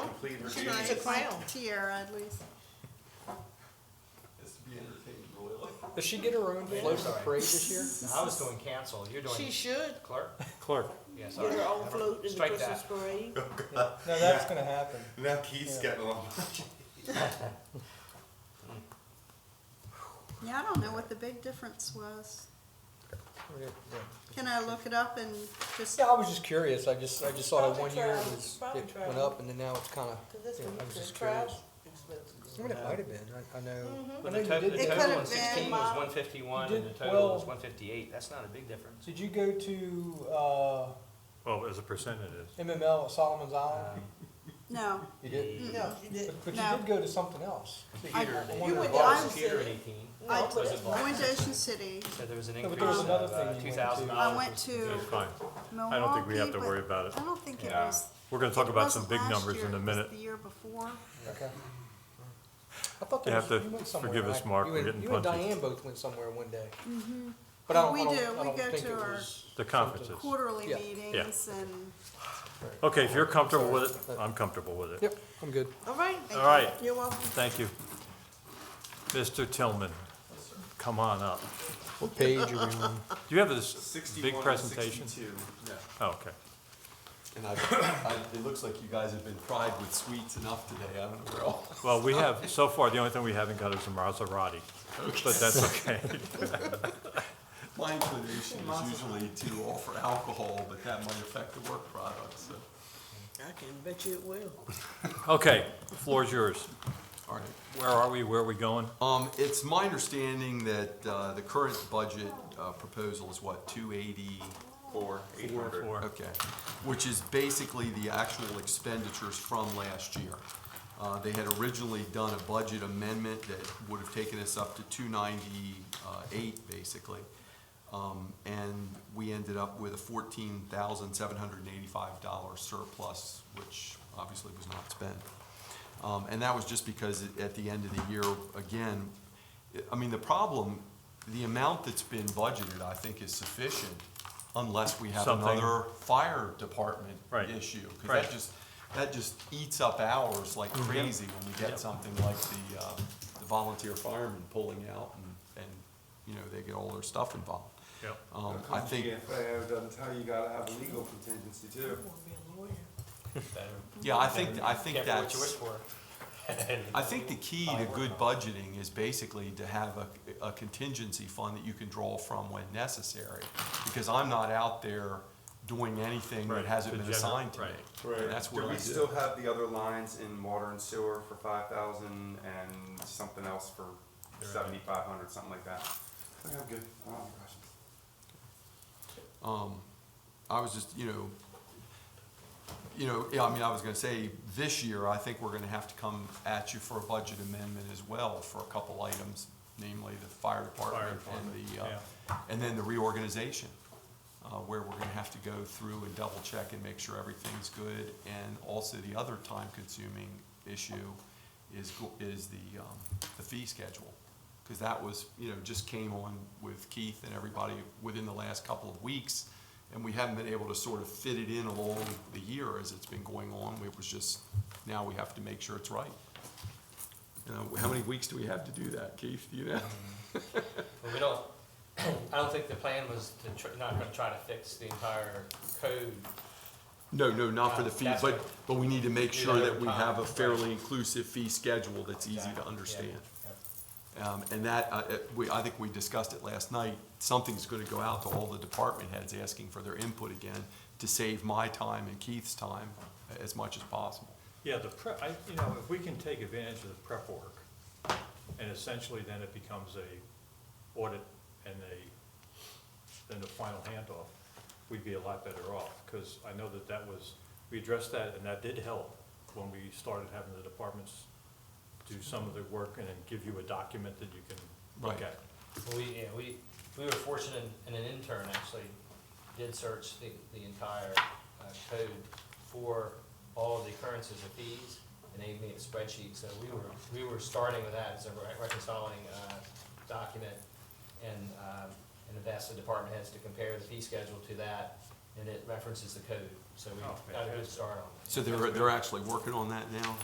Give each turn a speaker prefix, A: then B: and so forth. A: complete
B: She
A: review
B: needs a
A: needs
B: crown.
C: tiara at least.
D: Has to be entertained royally.
E: Does she get her own float
F: sorry.
E: of parade this year?
F: I was doing cancel, you're
B: She
F: doing
B: should
F: clerk?
A: clerk.
F: Yeah,
B: get
F: sorry.
B: her own
F: Never-
B: float in the
F: strike
B: Christmas
F: that.
B: parade.
E: No, that's gonna happen.
A: Now Keith's
E: Yeah.
A: getting along.
C: Yeah, I don't know what the big difference was.
E: Yeah.
C: Can I look it up and just,
E: Yeah, I was just curious, I just, I just saw that
B: Probably
E: one year it
B: travel,
E: was,
B: probably
E: it went
B: travel.
E: up and then now it's kinda,
B: Cause that's
E: Yeah,
B: when
E: I was
B: you
E: just
B: could travel.
E: curious. I mean,
B: Expensive.
E: it might have been, I, I know. I
F: But
B: Mm-hmm.
E: know
F: the
E: you
F: total,
E: did
F: the
C: It
E: that.
C: could've
F: total in
C: been
F: sixteen was
B: mile-
F: one fifty-one and the
E: Did-
F: total was
E: well-
F: one fifty-eight, that's not a big difference.
E: Did you go to, uh,
A: Well, as a percent it is.
E: MML at Solomon's Island?
F: Um,
C: no,
E: You did?
B: No, she didn't.
E: But, but you
C: No.
E: did go to something else.
C: I-
F: Computer at
E: you
F: eighteen.
E: went to
F: Bars,
C: Iowa
F: Computer at
B: City.
F: eighteen,
C: I
B: No, but
F: was
B: it's
F: it
C: I
F: ball?
C: went to Ocean City.
F: so there was an
E: No, but
F: increase
E: there was
F: of uh,
E: another thing you went
F: two
E: to.
F: thousand dollars.
C: I went to
A: It's fine.
C: Milwaukee.
A: Um, I don't think we have to
C: but
A: worry about it.
C: I don't think it
D: Yeah.
C: was.
A: We're gonna talk
C: it
A: about some
C: wasn't
A: big
C: last
A: numbers
C: year,
A: in a
C: it was
A: minute.
C: The year before.
E: Okay. I thought
A: You
E: there
A: have
E: was,
A: to
E: you went somewhere.
A: forgive us,
E: right?
A: Mark,
E: You
A: we're
E: and-
A: getting
E: You and
A: punchy.
E: Diane both went somewhere one day. But I
C: Mm-hmm.
E: don't,
C: We do.
E: I don't,
C: We
E: I don't
C: go
E: think
C: to
E: it
C: our-
E: was.
A: The conferences.
C: Quarterly
E: Yeah.
C: meetings and.
A: Okay, if you're comfortable with it, I'm comfortable with it.
E: Yep, I'm good.
B: All right.
A: All right,
C: You're welcome.
A: thank you. Mr. Tillman, come on up.
E: What page are we on?
A: Do you have this
D: Sixty-one
A: big
D: and
A: presentation?
D: sixty-two.
A: Oh, okay.
D: And I, I, it looks like you guys have been fried with sweets enough today, I don't know where all.
A: Well, we have, so far, the only thing we haven't got is a Maserati, but that's okay.
D: My inclination is usually to offer alcohol, but that might affect the work product, so.
B: I can bet you it will.
A: Okay, the floor's yours.
D: All right.
A: Where are we? Where are we going?
D: Um, it's my understanding that, uh, the current budget, uh, proposal is what, two eighty? Four, eight
A: hundred. Four.
D: Okay, which is basically the actual expenditures from last year. Uh, they had originally done a budget amendment that would have taken us up to two ninety-eight, basically. Um, and we ended up with a fourteen thousand seven hundred and eighty-five dollar surplus, which obviously was not spent. Um, and that was just because it- at the end of the year, again, I- I mean, the problem, the amount that's been budgeted, I think, is sufficient unless we have
A: Something-
D: another fire department
A: Right.
D: issue. Because
A: Right. Mm-hmm.
D: that just, that just eats up hours like crazy when we get something like the, uh, the volunteer firemen pulling out and, and, you know, they get all their stuff involved.
A: Yep.
D: Um, I think.
G: GFAO doesn't tell you, you gotta have a legal contingency too.
D: Yeah, I think, I think
F: Careful what
D: that's.
F: you wish for.
D: I think the key to good budgeting is basically to have a, a contingency fund that you can draw from when necessary. Because I'm not out there doing anything
A: Right,
D: that hasn't
A: to
D: been
A: gener-
D: assigned to me.
A: right.
D: And that's where
G: Do
D: I
G: we
D: do.
G: still have the other lines in water and sewer for five thousand and something else for seventy-five hundred, something like that? Okay, I'm good. I
D: Oh,
G: don't have any questions.
D: Um, I was just, you know, you know, yeah, I mean, I was gonna say, this year, I think we're gonna have to come at you for a budget amendment as well for a couple items, namely the fire department and
A: department,
D: the, uh, and then the reorganization, uh, where we're gonna have to go through and double check and make sure everything's good. And also the other time-consuming issue is, go- is the, um, the fee schedule. Cause that was, you know, just came on with Keith and everybody within the last couple of weeks. And we haven't been able to sort of fit it in along the year as it's been going on. It was just, now we have to make sure it's right. You know, how many weeks do we have to do that, Keith? Do you know?
F: Well, we don't, I don't think the plan was to tr- not gonna try to fix the entire code.
D: No, no, not for the
F: Uh,
D: fee,
F: that's
D: but,
F: what-
D: but we need to make
F: Do
D: sure
F: that
D: that
F: over
D: we
F: time,
D: have a
F: right.
D: fairly inclusive fee schedule that's easy
F: Exactly,
D: to
F: yeah,
D: understand.
F: yeah.
D: Um, and that, uh, uh, we, I think we discussed it last night, something's gonna go out to all the department heads asking for their input again to save my time and Keith's time uh, as much as possible.
A: Yeah, the prep, I, you know, if we can take advantage of the prep work, and essentially then it becomes a audit and a, then the final handoff, we'd be a lot better off, because I know that that was, we addressed that, and that did help when we started having the departments do some of the work and then give you a document that you can look
D: Right.
A: at.
F: Well, We, yeah, we, we were fortunate, and an intern actually did search the, the entire uh, code for all of the occurrences of fees, and they made a spreadsheet, so we were, we were starting with that as a re- reconciling, uh, document, and, um, and have asked the department heads to compare the fee schedule to that, and it references the code, so we
A: Oh,
F: got a good
A: fantastic.
F: start on it.
D: So they're, they're actually working on that now?